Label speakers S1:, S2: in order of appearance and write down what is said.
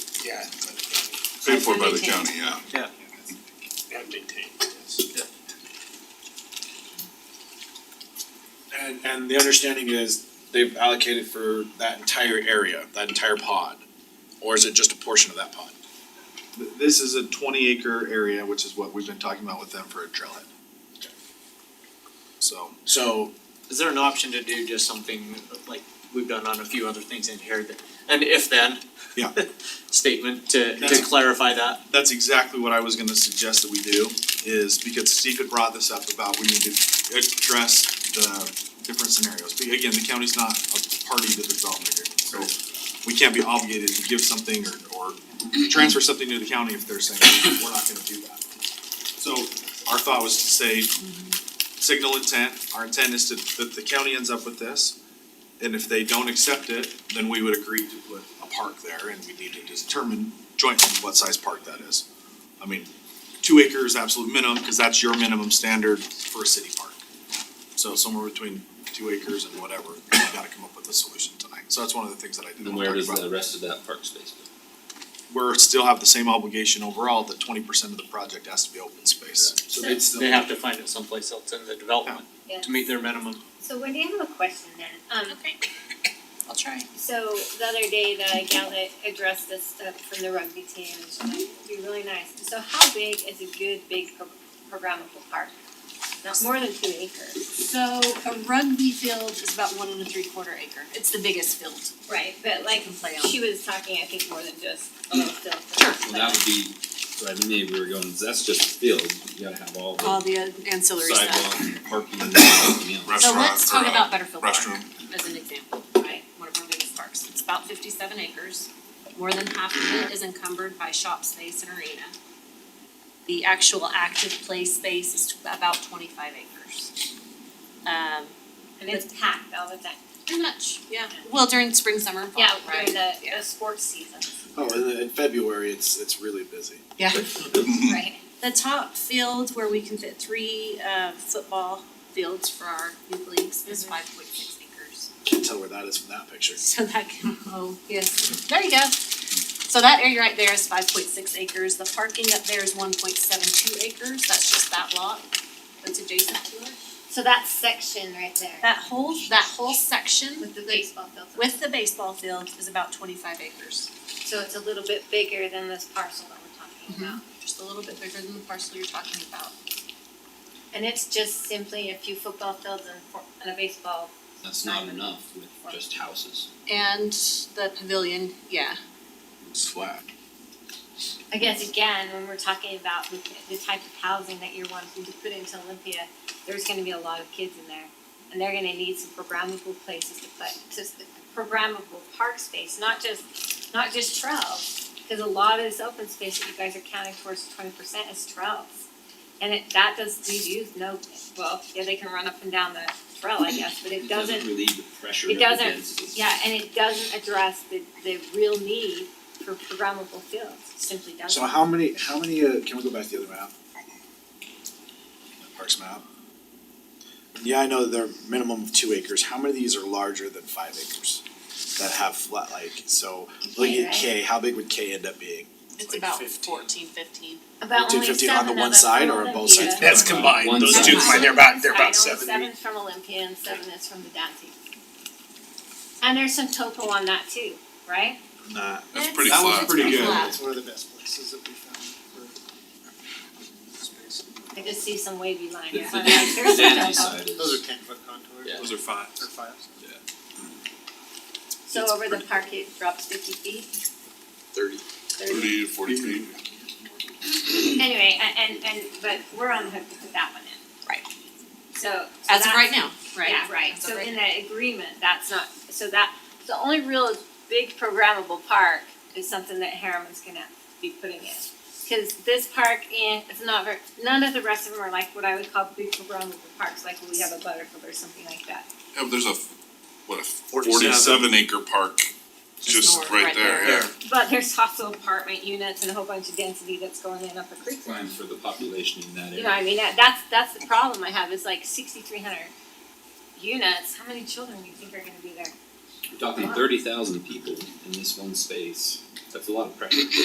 S1: Yeah.
S2: Paid for by the
S3: Maintained.
S2: county, yeah.
S1: And maintained, yes.
S4: And, and the understanding is they've allocated for that entire area, that entire pod, or is it just a portion of that pod?
S5: Th- This is a twenty acre area, which is what we've been talking about with them for a trailhead. So,
S4: So,
S6: Is there an option to do just something like we've done on a few other things in here that, an if then?
S5: Yeah.
S6: Statement to to
S5: That's-
S6: clarify that?
S5: that's exactly what I was gonna suggest that we do, is because Steve had brought this up about we need to address the different scenarios. But again, the county's not a party to the development agreement, so we can't be obligated to give something or, or transfer something to the county if they're saying, we're not gonna do that. So our thought was to say, signal intent, our intent is to, that the county ends up with this. And if they don't accept it, then we would agree to put a park there and we need to determine jointly what size park that is. I mean, two acres absolute minimum, cause that's your minimum standard for a city park. So somewhere between two acres and whatever, we gotta come up with a solution tonight, so that's one of the things that I did.
S7: And where does the rest of that park space go?
S5: We're still have the same obligation overall, that twenty percent of the project has to be open space.
S6: So they they have to find it someplace else in the development
S3: Yeah.
S6: to meet their minimum.
S3: So Wendy, I have a question then. Um,
S2: Okay. I'll try.
S3: so the other day, the gal that addressed this stuff from the rugby team, and she's like, it'd be really nice. So how big is a good big pro- programmable park? Not more than two acres.
S8: So a rugby field is about one and a three quarter acre. It's the biggest field.
S3: Right, but like,
S8: can play on.
S3: she was talking, I think, more than just a little field.
S7: Well, that would be, so I mean, we were going, that's just a field, you gotta have all
S8: All
S7: the
S8: the uh, ancillary
S7: sidewalk
S8: stuff.
S7: and parking and everything else.
S8: So
S2: Restaurant
S8: let's
S2: or,
S8: talk
S2: uh,
S8: about Butterfield Park
S2: restroom.
S8: as an example, right? One of our biggest parks. It's about fifty-seven acres. More than half of it is encumbered by shop space and arena. The actual active play space is about twenty-five acres. Um,
S3: And it's packed all the time.
S8: pretty much, yeah. Well, during spring, summer, and fall,
S3: Yeah, Mm-hmm.
S8: right?
S3: during the, the sports season,
S4: oh, and in February, it's, it's really busy.
S8: Yeah.
S3: right?
S8: the top field where we can fit three uh football fields for our youth leagues is five point six acres.
S4: Can't tell where that is from that picture.
S8: So that can, oh, yes, there you go. So that area right there is five point six acres, the parking up there is one point seven two acres, that's just that lot that's adjacent to it.
S3: So that section right there
S8: That whole, that whole section
S3: with the baseball field.
S8: with the baseball field is about twenty-five acres.
S3: So it's a little bit bigger than this parcel that we're talking about.
S8: Just a little bit bigger than the parcel you're talking about.
S3: And it's just simply a few football fields and, four- and a baseball.
S7: That's not enough with just houses.
S8: And the pavilion, yeah,
S4: It's flat.
S3: I guess again, when we're talking about the, the type of housing that you're wanting to put into Olympia, there's gonna be a lot of kids in there. And they're gonna need some programmable places to put, just the programmable park space, not just, not just trails. Cause a lot of this open space that you guys are counting towards twenty percent is trails. And it, that does leave youth no, well, yeah, they can run up and down the trail, I guess, but it doesn't
S7: relieve the pressure
S3: It
S7: of the
S3: doesn't.
S7: density.
S3: Yeah, and it doesn't address the, the real need for programmable fields, It simply doesn't.
S4: So how many, how many, uh, can we go back to the other map? Parks map. Yeah, I know they're minimum of two acres, how many of these are larger than five acres? That have flat, like, so, look
S3: Okay,
S4: at
S3: right.
S4: K, how big would K end up being?
S8: it's
S4: Like
S8: about
S4: 15.
S8: fourteen, fifteen.
S3: About only
S4: 250 on the
S3: seven
S4: one
S3: of us
S4: side
S3: from
S4: or on both
S3: Olympia.
S4: sides?
S1: That's combined,
S7: One
S1: those
S7: side.
S1: two combined, they're about, they're about
S3: That's on one
S1: seventy.
S3: side, only seven from Olympia and seven is from the Dante. And there's some topo on that too, right?
S5: Nah,
S2: That's pretty
S5: That was
S2: flat.
S5: pretty good.
S8: Flat.
S9: It's one of the best places that we found for space.
S3: I just see some wavy lines.
S7: The-
S3: It's
S7: the
S3: not like
S7: dan-
S3: there's
S7: the
S3: some
S7: dandy
S3: topo.
S7: side is-
S9: Those are ten foot contours.
S7: Yeah.
S5: those are five.
S9: Or fives.
S3: So over the park, it drops fifty feet? Thirty. Thirty.
S2: Thirty to forty feet.
S3: Anyway, a- and, and, but we're on the hook to put that one in.
S8: Right.
S3: So. so
S8: As of
S3: that's-
S8: right now, right?
S3: Yeah, right,
S8: As of
S3: so
S8: right
S3: in
S8: now.
S3: that agreement, that's not, so that, the only real big programmable park is something that Harriman's gonna be putting in. Cause this park and it's not very, none of the rest of them are like what I would call big programmable parks, like we have a Butterfield or something like that.
S2: Yeah, but there's a, f- what, a forty-seven
S4: 47.
S2: acre park just
S8: north,
S2: right
S8: right
S2: there,
S8: there.
S2: yeah.
S3: But there's also apartment units and a whole bunch of density that's going in up a creek.
S7: Plan for the population in that
S3: You know, I
S7: area.
S3: mean, that, that's, that's the problem I have, is like sixty-three hundred units, how many children do you think are gonna be there?
S7: We're talking thirty thousand people in this one space. That's a lot of pressure.